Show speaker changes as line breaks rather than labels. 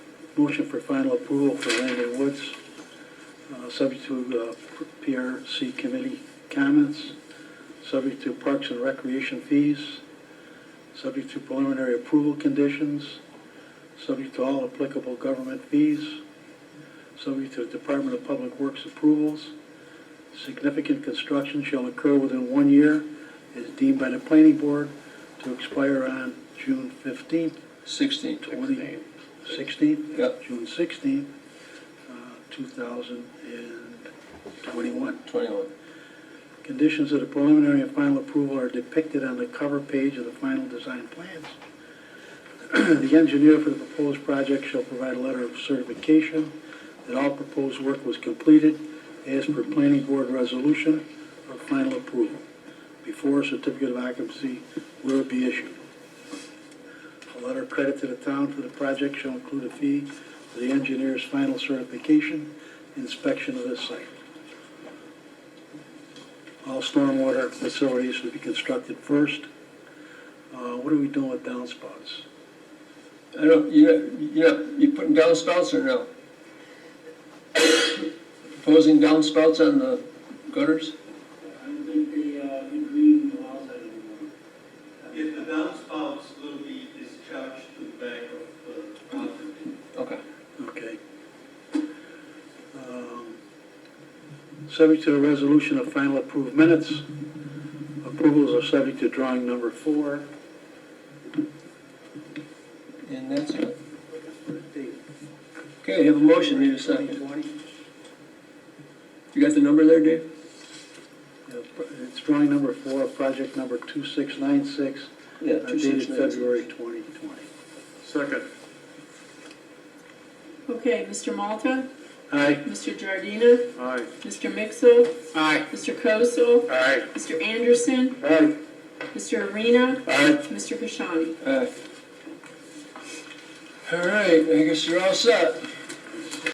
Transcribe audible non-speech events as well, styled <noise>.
Motion for final approval for Landon Woods, uh, subject to uh, PRC committee comments, subject to parks and recreation fees, subject to preliminary approval conditions, subject to all applicable government fees, subject to Department of Public Works approvals. Significant construction shall occur within one year as deemed by the planning board to expire on June fifteenth,
16,
20, 16th?
Yep.
June 16th, uh, 2021.
21.
Conditions of the preliminary and final approval are depicted on the cover page of the final design plans. <clears throat> The engineer for the proposed project shall provide a letter of certification that all proposed work was completed as per planning board resolution or final approval before a certificate of occupancy will be issued. A letter of credit to the town for the project shall include a fee for the engineer's final certification, inspection of the site. All stormwater facilities should be constructed first. Uh, What are we doing with downspouts?
I don't, you, you, you putting downspouts or no? Proposing downspouts on the gutters?
I don't think the, uh, in green allows that anymore.
If the downspouts will be discharged to the back of the fountain.
Okay.
Okay. Um, Subject to the resolution of final approved minutes. Approvals are subject to drawing number four.
And that's it. Okay, have a motion, need a second. You got the number there, Dave?
It's drawing number four, project number 2696,
Yeah,
uh, dated February 2020.
Second.
Okay, Mr. Malta,
Aye.
Mr. Giardina,
Aye.
Mr. Mixel,
Aye.
Mr. Kosel,
Aye.
Mr. Anderson,
Aye.
Mr. Arena,
Aye.
Mr. Kashani.
All right, I guess you're all set.